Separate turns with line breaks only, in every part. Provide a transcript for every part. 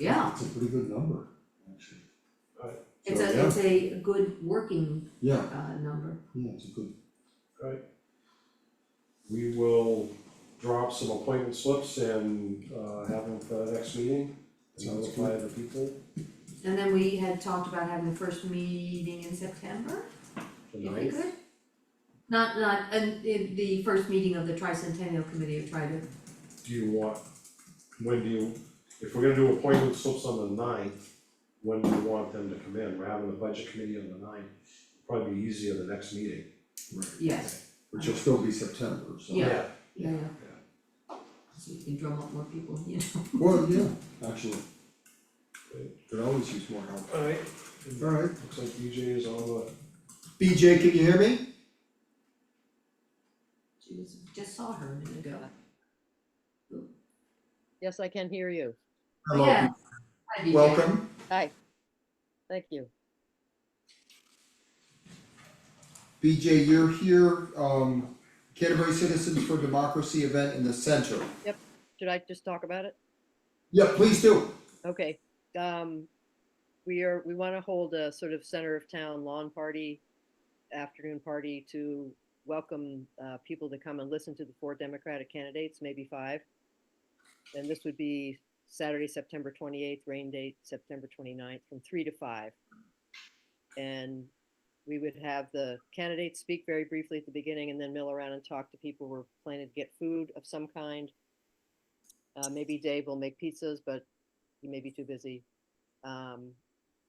Yeah,
It's a pretty good number, actually.
Right.
it's
So,
a,
yeah.
it's a good working
Yeah,
uh number,
yeah, it's a good,
We will drop some appointment slips and uh have them for the next meeting, and
Sounds
notify the people.
and then we had talked about having the first meeting in September, if
The
we
ninth,
could. Not, not, and in the first meeting of the tricentennial committee of tri,
do you want, when do you, if we're gonna do appointment slips on the ninth, when do you want them to come in? We're having the budget committee on the ninth, probably be easier the next meeting.
right,
yes,
which will still be September, so.
Yeah. yeah, yeah. So you can drum up more people, you know.
Well, yeah, actually.
Great.
Could always use more help.
Alright,
Alright,
looks like BJ is on the,
BJ, can you hear me?
She was, just saw her a minute ago.
Yes, I can hear you.
Hello,
Yeah. Hi, BJ.
Welcome.
Hi. Thank you.
BJ, you're here, um, Canterbury Citizens for Democracy event in the center.
Should I just talk about it?
Yeah, please do.
Okay, um, we are, we want to hold a sort of center of town lawn party, afternoon party to welcome, uh, people to come and listen to the four Democratic candidates, maybe five. And this would be Saturday, September twenty-eighth, rain date, September 29th, from three to five. And we would have the candidates speak very briefly at the beginning and then mill around and talk to people. We're planning to get food of some kind. Uh, maybe Dave will make pizzas, but he may be too busy, um,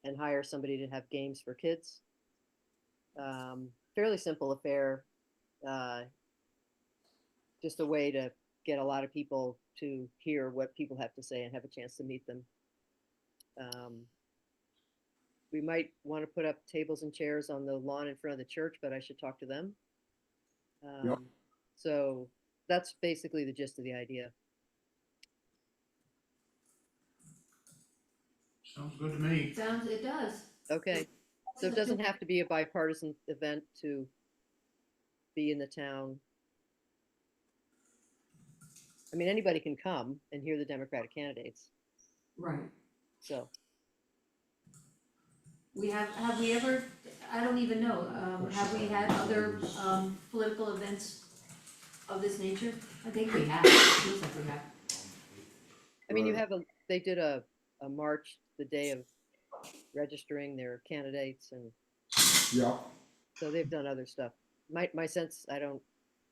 and hire somebody to have games for kids. Um, fairly simple affair, uh, just a way to get a lot of people to hear what people have to say and have a chance to meet them. Um, we might want to put up tables and chairs on the lawn in front of the church, but I should talk to them.
Yeah.
Um, so that's basically the gist of the idea.
Sounds good to me.
Sounds, it does.
Okay. So it doesn't have to be a bipartisan event to be in the town. I mean, anybody can come and hear the Democratic candidates,
Right.
so.
We have, have we ever, I don't even know, um, have we had other, um, political events of this nature? I think we have, it seems like we have.
I mean, you
Right.
have a, they did a, a march the day of registering their candidates and
Yeah,
so they've done other stuff. My, my sense, I don't,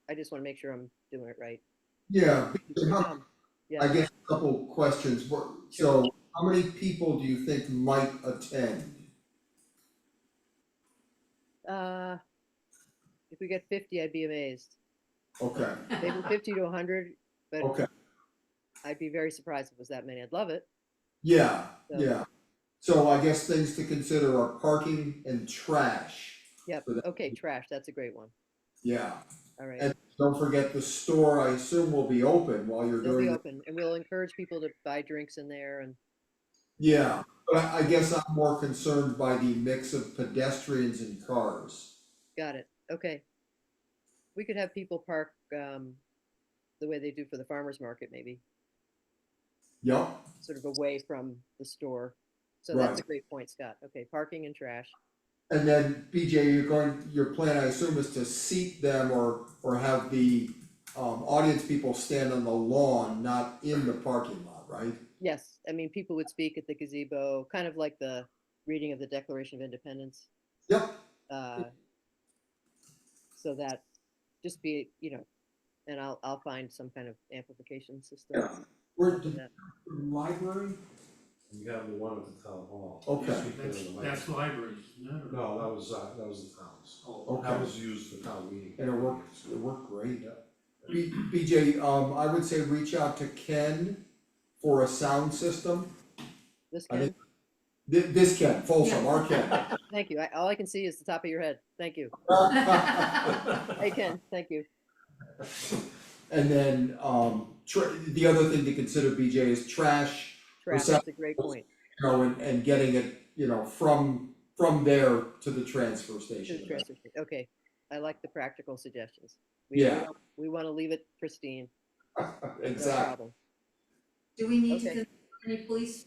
I just want to make sure I'm doing it right.
yeah,
People
how-
come.
I
Yeah,
guess a couple questions, What- so how many people do you think might attend?
uh, if we get fifty, I'd be amazed.
Okay,
Maybe fifty to hundred, but
okay,
I'd be very surprised if it was that many. I'd love it.
yeah,
So-
yeah. So I guess things to consider are parking and trash,
Yep,
So that-
okay, trash, that's a great one.
yeah.
All right,
And don't forget the store, I assume will be open while you're
they'll be
doing, the-
open, and we'll encourage people to buy drinks in there and,
yeah. But I, I guess I'm more concerned by the mix of pedestrians and cars.
got it, okay. We could have people park, um, the way they do for the farmer's market maybe,
Yep,
sort of away from the store. So that's
Right.
a great point, Scott. Okay, parking and trash.
and then BJ, you're going, your plan, I assume, is to seat them or, or have the, um, audience people stand on the lawn, not in the parking lot, right?
Yes, I mean, people would speak at the gazebo, kind of like the reading of the Declaration of Independence.
Yep,
uh, So that, just be, you know, and I'll, I'll find some kind of amplification system.
Yeah. we're,
for that.
library?
we have the one at the town hall.
Okay.
Just because
That's,
of the
that's libraries, no?
No, that was, uh, that was the town's.
Oh,
Okay.
That was used for town meeting.
And it worked, it worked great.
Yeah.
B- BJ, um, I would say reach out to Ken for a sound system.
This
I
can-
think- Thi- this Ken, Folsom, our Ken.
Thank you. I, all I can see is the top of your head. Thank you. Hey, Ken, thank you.
And then, um, tr- the other thing to consider, BJ, is trash,
Trash,
Percep-
that's a great point.
you know, and, and getting it, you know, from, from there to the transfer
To the
station.
transfer sta- Okay, I like the practical suggestions. We- we
Yeah.
don't- We want to leave it pristine. No
Exactly.
problem.
Do we need to
Okay.
consider any police